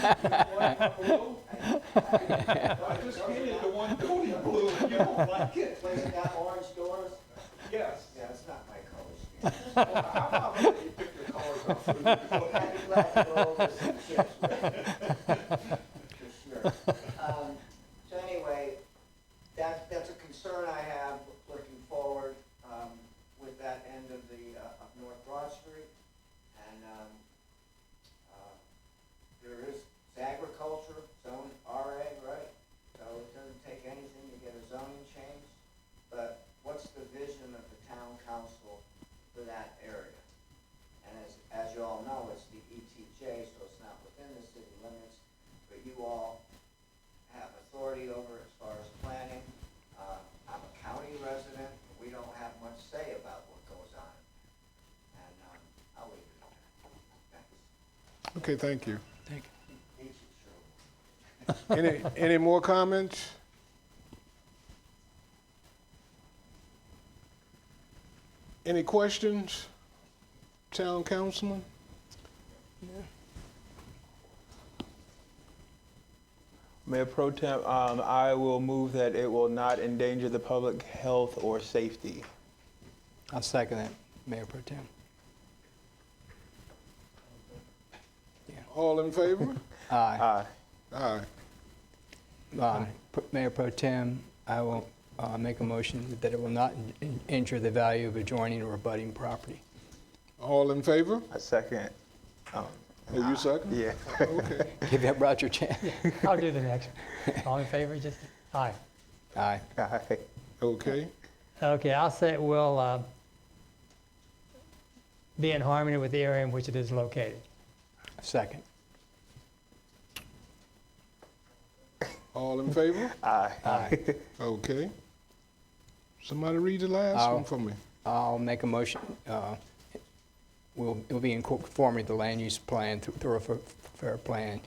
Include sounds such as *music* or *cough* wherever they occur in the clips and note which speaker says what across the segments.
Speaker 1: *laughs*
Speaker 2: I just painted the one building blue, you don't like it.
Speaker 3: Place that got orange doors?
Speaker 2: Yes.
Speaker 3: Yeah, it's not my color *laughs*
Speaker 2: Well, I'm not
Speaker 3: scheme.
Speaker 2: gonna let you pick the colors
Speaker 3: *laughs*
Speaker 2: out for
Speaker 3: Well,
Speaker 2: you.
Speaker 3: happy black rolls and some chips, right? For sure. Um, So anyway, that, that's a concern I have looking forward um, with that end of the, uh, of North Broad Street. And um, uh, there is it's agriculture, zone RA, right? So it doesn't take anything to get a zoning change. But what's the vision of the town council for that area? And as, as you all know, it's the ETJ, so it's not within the city limits, but you all have authority over as far as planning. Uh, I'm a county resident, but we don't have much say about what goes on. And, um, I'll leave it at that. Thanks.
Speaker 4: Okay, thank you.
Speaker 5: Thank you.
Speaker 3: Each is true.
Speaker 4: Any, *laughs* any more comments? Any questions, town councilman?
Speaker 6: Mayor Pro Tem, um, I will move that it will not endanger the public health or safety.
Speaker 5: I'll second that, Mayor Pro Tem.
Speaker 4: All in favor?
Speaker 5: Aye.
Speaker 6: Aye.
Speaker 4: Aye.
Speaker 5: Um, Pro- Mayor Pro Tem, I will uh, make a motion that it will not in- in- injure the value of adjoining or abutting property.
Speaker 4: All in favor?
Speaker 6: A second. Um,
Speaker 4: Are you second?
Speaker 6: yeah. *laughs*
Speaker 4: *laughs* Okay.
Speaker 5: Give that Roger a chance.
Speaker 1: I'll do the next. one. All in favor, just, aye.
Speaker 5: Aye.
Speaker 6: Aye.
Speaker 4: Okay.
Speaker 1: Okay, I'll say it will uh, be in harmony with the area in which it is located.
Speaker 5: Second.
Speaker 4: All in favor?
Speaker 6: Aye.
Speaker 5: Aye.
Speaker 4: Okay. Somebody read the last one
Speaker 5: I'll-
Speaker 4: for me.
Speaker 5: I'll make a motion, uh, will, will be in conformity with the land use plan, thro- thoroughfare plan,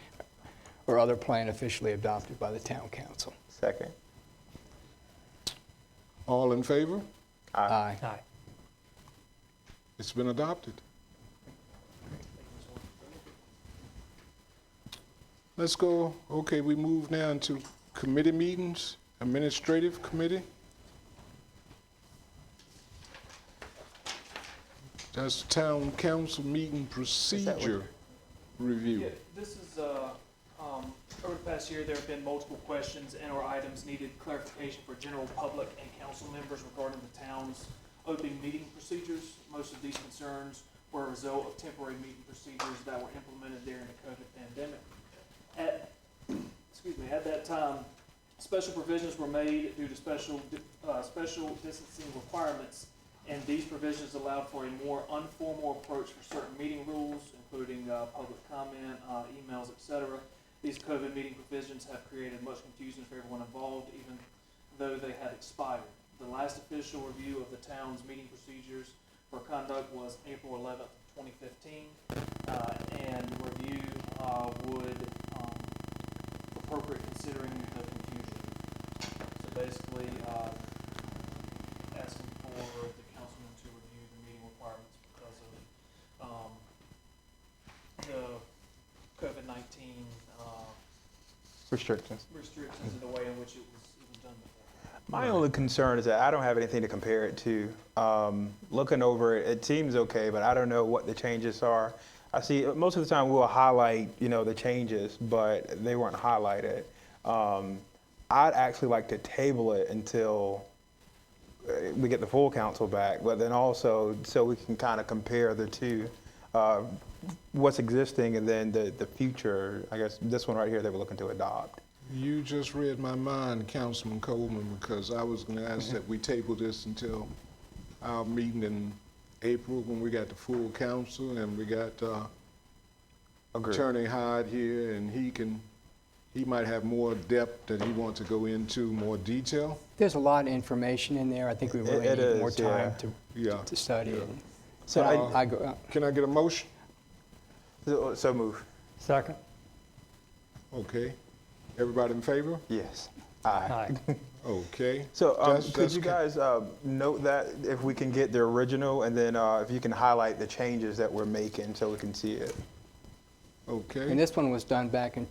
Speaker 5: or other plan officially adopted by the town council.
Speaker 6: Second.
Speaker 4: All in favor?
Speaker 5: Aye.
Speaker 1: Aye.
Speaker 4: It's been adopted. Let's go, okay, we move now into committee meetings, administrative committee. That's town council meeting
Speaker 6: that what-
Speaker 4: procedure
Speaker 7: Yeah,
Speaker 4: review.
Speaker 7: this is, uh, um, over the past year, there have been multiple questions and/or items needed clarification for general public and council members regarding the town's open meeting procedures. Most of these concerns were a result of temporary meeting procedures that were implemented during the COVID pandemic. At, excuse me, at that time, special provisions were made due to special, di- uh, special distancing requirements, and these provisions allowed for a more informal approach for certain meeting rules, including uh, public comment, uh, emails, et cetera. These COVID meeting provisions have created much confusion for everyone involved, even though they had expired. The last official review of the town's meeting procedures for conduct was April eleventh, twenty fifteen, Uh, and review uh, would um, appropriate considering the confusion. So basically, uh, asking for the councilman to review the meeting requirements because of, um, the COVID nineteen, uh,
Speaker 6: Restrictions.
Speaker 7: restrictions and the way in which it was, it was done before.
Speaker 6: My only concern is that I don't have anything to compare it to. Um, looking over it, it seems okay, but I don't know what the changes are. I see most of the time we'll highlight, you know, the changes, but they weren't highlighted. Um, I'd actually like to table it until uh, we get the full council back, but then also so we can kind of compare the two, uh, what's existing and then the, the future. I guess this one right here that we're looking to adopt.
Speaker 4: You just read my mind, Councilman Coleman, because I was going to ask that we table this until our meeting in April when we got the full council and we got uh,
Speaker 6: Agreed.
Speaker 4: Attorney Hyde here and he can, he might have more depth that he wants to go into, more detail.
Speaker 5: There's a lot of information in there. I think we really
Speaker 6: it
Speaker 5: need more
Speaker 6: is, yeah.
Speaker 5: time to,
Speaker 4: Yeah.
Speaker 5: to study it.
Speaker 6: So
Speaker 5: But
Speaker 6: I-
Speaker 5: I, I go, uh,
Speaker 4: Can I get a motion?
Speaker 6: So, so move.
Speaker 1: Second?
Speaker 4: Okay. Everybody in favor?
Speaker 6: Yes. Aye.
Speaker 1: Aye.
Speaker 4: Okay.
Speaker 6: So um,
Speaker 4: That's-
Speaker 6: could
Speaker 4: that's
Speaker 6: you
Speaker 4: ca-
Speaker 6: guys uh, note that if we can get the original, and then uh, if you can highlight the changes that we're making, so we can see it.
Speaker 4: Okay.
Speaker 5: and this one was done back in